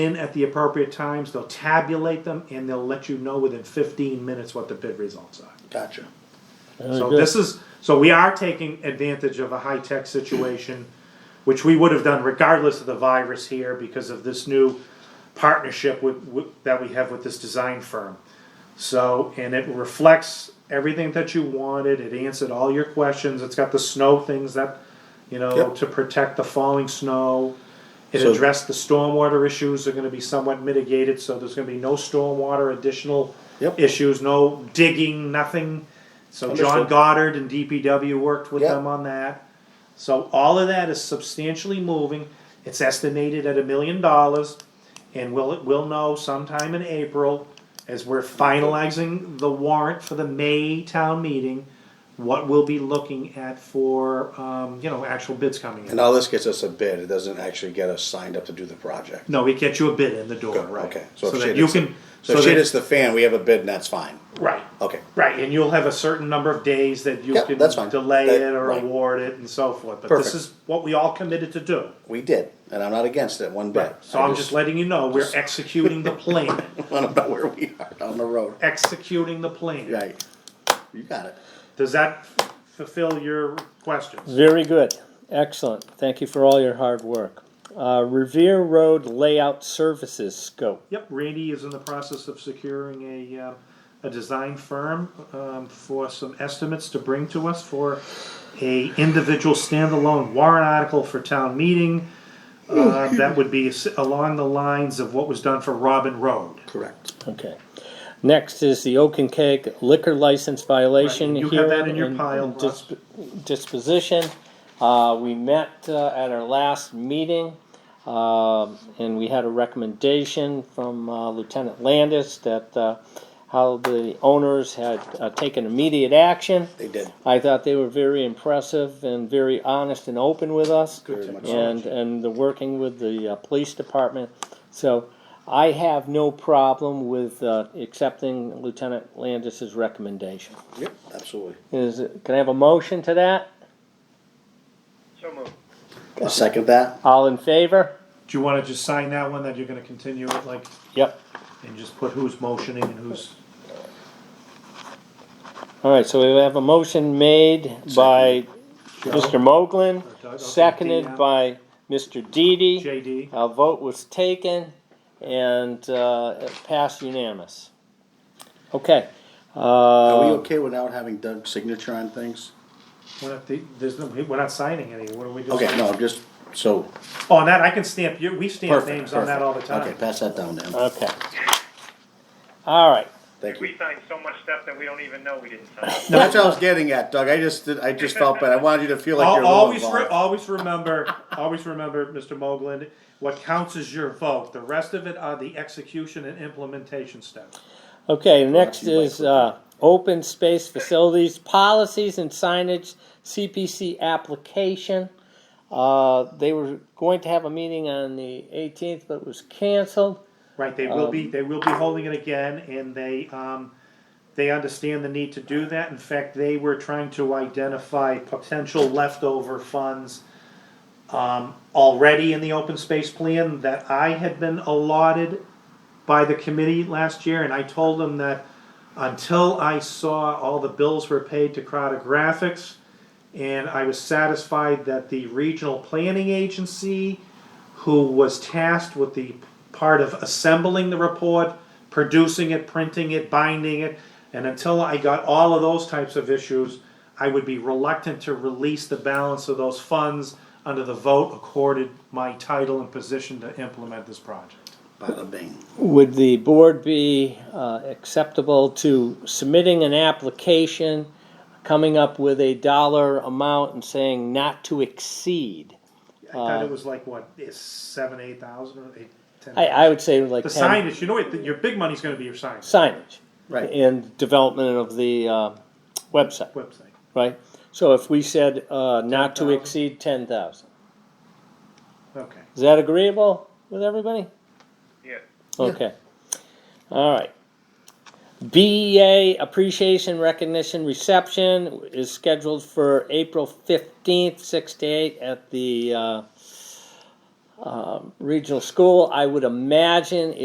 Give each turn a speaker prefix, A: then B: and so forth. A: in at the appropriate times, they'll tabulate them, and they'll let you know within fifteen minutes what the bid results are.
B: Gotcha.
A: So this is, so we are taking advantage of a high-tech situation, which we would have done regardless of the virus here because of this new partnership with, with, that we have with this design firm. So, and it reflects everything that you wanted, it answered all your questions, it's got the snow things that, you know,
B: Yep.
A: to protect the falling snow. It
B: So-
A: addressed the stormwater issues are gonna be somewhat mitigated, so there's gonna be no stormwater additional
B: Yep.
A: issues, no digging, nothing. So John
B: Understood.
A: Goddard and DPW worked with
B: Yeah.
A: them on that. So all of that is substantially moving. It's estimated at a million dollars. And we'll, we'll know sometime in April, as we're finalizing the warrant for the May town meeting, what we'll be looking at for, um, you know, actual bids coming
B: And
A: in.
B: all this gets us a bid, it doesn't actually get us signed up to do the project.
A: No, we get you a bid in the door,
B: Good,
A: right?
B: okay.
A: So
B: So if
A: that
B: shit
A: you
B: hits the-
A: can.
B: So if
A: that-
B: shit hits the fan, we have a bid and that's fine.
A: Right.
B: Okay,
A: Right, and you'll have a certain number of days that you
B: Yeah,
A: can
B: that's fine.
A: delay
B: That-
A: it or
B: right.
A: award it and so forth, but this
B: Perfect.
A: is what we all committed to do.
B: we did, and I'm not against it one bit.
A: So
B: I
A: I'm just letting you know, we're executing the plan,
B: wanna know where we are on the road.
A: executing the plan.
B: Right, you got it.
A: Does that f- fulfill your questions?
C: Very good, excellent. Thank you for all your hard work. Uh, Revere Road Layout Services Scope.
A: Yep, Randy is in the process of securing a, uh, a design firm, um, for some estimates to bring to us for a individual standalone warrant article for town meeting. Uh, that would be s- along the lines of what was done for Robin Road.
B: Correct.
C: Okay. Next is the Oak and Cake liquor license violation.
A: Right, you have that
C: hearing
A: in your
C: and
A: pile,
C: dis- Disposition. Uh, we met, uh, at our last meeting, um and we had a recommendation from uh, Lieutenant Landis that, uh, how the owners had, uh, taken immediate action.
B: They did.
C: I thought they were very impressive and very honest and open with us.
B: Very much so.
C: And, and the working with the uh, police department. So I have no problem with uh, accepting Lieutenant Landis's recommendation.
B: Yep, absolutely.
C: Is, it- can I have a motion to that?
D: So moved.
B: I'll Second that?
C: All in favor?
A: Do you wanna just sign that one that you're gonna continue it like,
C: Yep.
A: and just put who's motioning and who's,
C: All right, so we have a motion made by Mr. Moglen,
A: Doug, okay,
C: seconded
A: Dee,
C: by Mr. Didi.
A: JD?
C: A vote was taken and uh, it passed unanimous. Okay.
B: Are we
C: uh,
B: okay without having Doug's signature on things?
A: We're not, the- there's no, we're not signing any, what are we doing?
B: Okay, no, I'm just, so,
A: Oh, on that, I can stamp, you, we stamp
B: perfect,
A: names on that
B: perfect.
A: all the
B: Okay,
A: time.
B: pass that down to him.
C: Okay. All right.
B: Thank you.
D: We signed so much stuff that we don't even know we didn't sign.
B: No, that's what I was getting at, Doug. I just, did- I just felt bad. I wanted you to feel like
A: Al-
B: you're a little
A: Always, re-
B: involved.
A: always remember, always remember, Mr. Moglen, what counts is your vote, the rest of it are the execution and implementation steps.
C: Okay, next
B: you might
C: is uh, open space facilities, policies and signage, CPC application. Uh, They were going to have a meeting on the 18th, but it was canceled.
A: Right, they will be, they will be holding it again, and they, um, they understand the need to do that, in fact, they were trying to identify potential leftover funds. Um, already in the open space plan that I had been allotted by the committee last year, and I told them that. Until I saw all the bills were paid to Crowder Graphics, and I was satisfied that the regional planning agency who was tasked with the part of assembling the report, producing it, printing it, binding it. And until I got all of those types of issues, I would be reluctant to release the balance of those funds under the vote accorded my title and position to implement this project.
B: Bada bing.
C: Would the board be uh, acceptable to submitting an application, coming up with a dollar amount and saying not to exceed?
A: I thought it was like, what, is seven, eight thousand or eight, ten?
C: Uh, I, I would say like
A: The
C: 10
A: signage, you know, what, your big money's gonna be your signage,
C: signage.
B: Right.
C: And development of the uh, website,
A: website.
C: right? So if we said uh, not to
A: 10,000.
C: exceed 10,000,
A: Okay,
C: is that agreeable with everybody?
D: Yeah.
C: Okay. All right. BEA Appreciation Recognition Reception is scheduled for April fifteenth, six to eight at the, uh, um, regional school. I would imagine